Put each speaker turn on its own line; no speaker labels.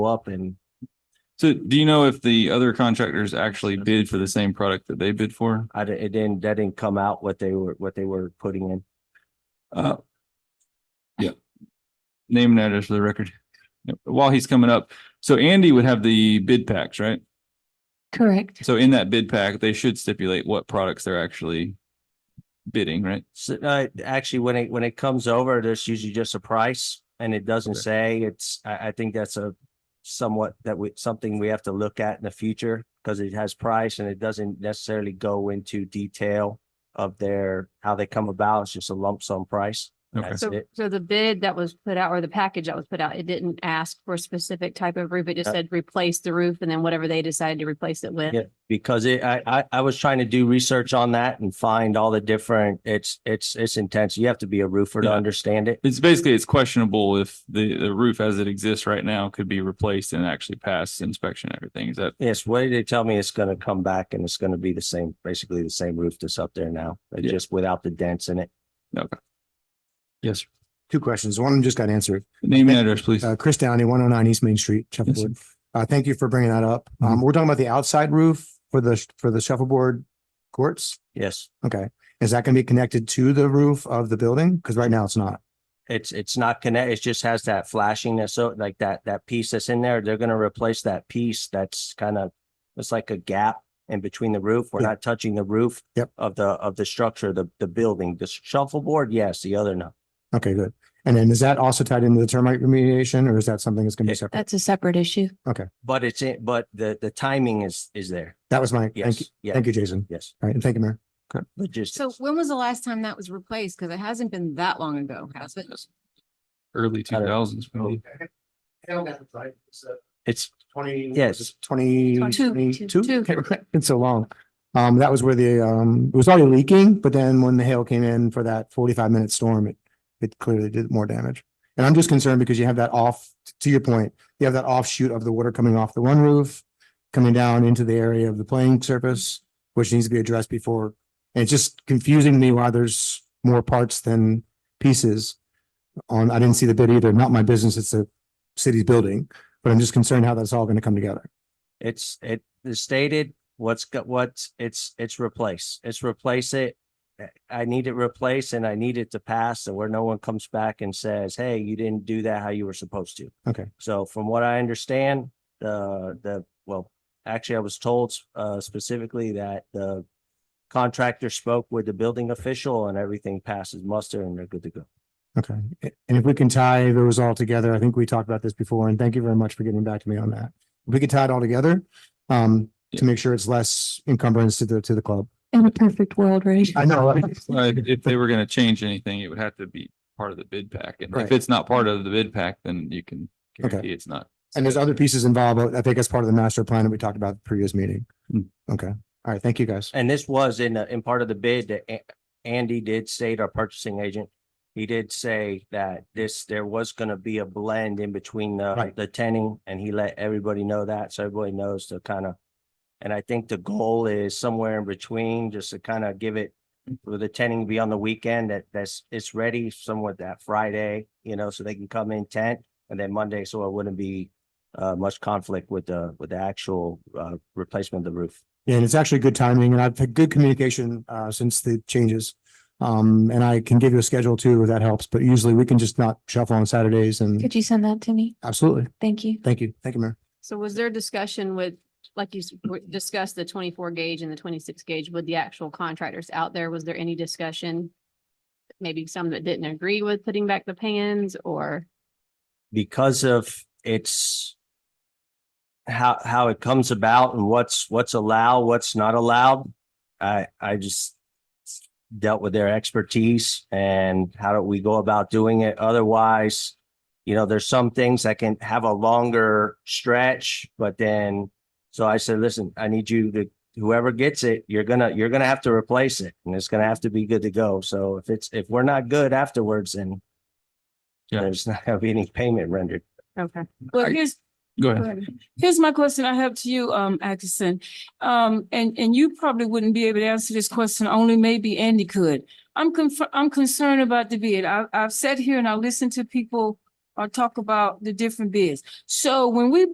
up and
So do you know if the other contractors actually bid for the same product that they bid for?
I, di- it didn't, that didn't come out what they were, what they were putting in.
Uh, yeah. Name and address for the record. Yep. While he's coming up, so Andy would have the bid packs, right?
Correct.
So in that bid pack, they should stipulate what products they're actually bidding, right?
So, uh, actually, when it, when it comes over, there's usually just a price and it doesn't
Okay.
say it's, I, I think that's a somewhat that we, something we have to look at in the future because it has price and it doesn't necessarily go into detail of their, how they come about. It's just a lump sum price.
Okay.
That's
So,
it.
so the bid that was put out or the package that was put out, it didn't ask for a specific type of roof. It just
Uh,
said replace the roof and then whatever they decided to replace it with.
Yeah, because it, I, I, I was trying to do research on that and find all the different, it's, it's, it's intense. You have to be a roofer to
Yeah.
understand it.
It's basically, it's questionable if the, the roof as it exists right now could be replaced and actually pass inspection and everything. Is that,
Yes, what did they tell me? It's gonna come back and it's gonna be the same, basically the same roof that's up there now, but
Yeah.
just without the dents in it.
yes,
Two questions. One of them just got answered.
name and address, please.
Uh, Chris Downey, one oh nine East Main Street, shuffleboard. Uh, thank you for bringing that up.
Mm-hmm.
Um, we're talking about the outside roof for the, for the shuffleboard courts.
Yes,
Okay. Is that going to be connected to the roof of the building? Because right now it's not.
it's, it's not connect, it just has that flashing, that's so, like that, that piece that's in there, they're gonna replace that piece that's kind of, it's like a gap in between the roof. We're
Yeah.
not touching the roof
Yep.
of the, of the structure, the, the building, the shuffleboard, yes, the other no.
Okay, good. And then is that also tied into the termite remediation or is that something that's going to be
It-
separate?
That's a separate issue.
But it's, in but the, the timing is, is there.
That was my, thank you,
Yes, yeah,
thank you, Jason.
yes,
All right. And thank you, Mayor.
logistics.
So when was the last time that was replaced? Because it hasn't been that long ago, has it?
Early two
I don't-
thousands.
Oh.
It's,
Twenty.
Yes.
Twenty.
Two, two, two.
It's so long. Um, that was where the, um, it was already leaking, but then when the hail came in for that forty-five minute storm, it, it clearly did more damage. And I'm just concerned because you have that off, to your point, you have that offshoot of the water coming off the one roof, coming down into the area of the playing surface, which needs to be addressed before. And it's just confusing me why there's more parts than pieces. On, I didn't see the bid either. Not my business. It's the city's building, but I'm just concerned how that's all going to come together.
It's, it is stated what's got, what's, it's, it's replace, it's replace it. Uh, I need it replaced and I need it to pass so where no one comes back and says, hey, you didn't do that how you were supposed to.
Okay.
So from what I understand, the, the, well, actually I was told, uh, specifically that the contractor spoke with the building official and everything passes muster and they're good to go.
Okay, A- and if we can tie those all together, I think we talked about this before, and thank you very much for getting back to me on that. If we could tie it all together, um, to make sure it's less encumbrance to the, to the club.
In a perfect world, right?
I know. right?
Well, If if they were gonna change anything, it would have to be part of the bid pack. And if
Right.
it's not part of the bid pack, then you can
Okay.
guarantee it's not.
And there's other pieces involved, but I think that's part of the master plan that we talked about at the previous meeting.
Hmm.
Okay, all right, thank you, guys.
And this was in, the- in part of the bid that A- Andy did state, our purchasing agent. He did say that this, there was gonna be a blend in between the,
Right.
the tenning and he let everybody know that. So everybody knows to kind of. And I think the goal is somewhere in between, just to kind of give it, with the tenning be on the weekend that that's, it's ready somewhat that Friday, you know, so they can come in tent. And then Monday, so it wouldn't be, uh, much conflict with the, with the actual, uh, replacement of the roof.
And it's actually good timing, and I've had good communication, uh, since the changes. Um, and I can give you a schedule too, if that helps, but usually we can just not shuffle on Saturdays and
Could you send that to me?
absolutely,
Thank you.
thank you, thank you, Mayor.
So was there discussion with, like you s- w- discussed the twenty-four gauge and the twenty-six gauge with the actual contractors out there? Was there any discussion? Maybe some that didn't agree with putting back the pans or?
because of its how how it comes about and what's what's allowed, what's not allowed. I I just dealt with their expertise and how do we go about doing it. Otherwise, you know, there's some things that can have a longer stretch, but then so I said, listen, I need you to whoever gets it, you're gonna you're gonna have to replace it and it's gonna have to be good to go. So if it's if we're not good afterwards, then
Yeah.
there's not gonna be any payment rendered.
Okay.
Well,
I-
here's,
Go ahead.
here's my question I have to you, um, Atkinson. Um, and, and you probably wouldn't be able to answer this question, only maybe Andy could. I'm conf- I'm concerned about the bid. I, I've sat here and I listened to people uh, talk about the different bids. So when we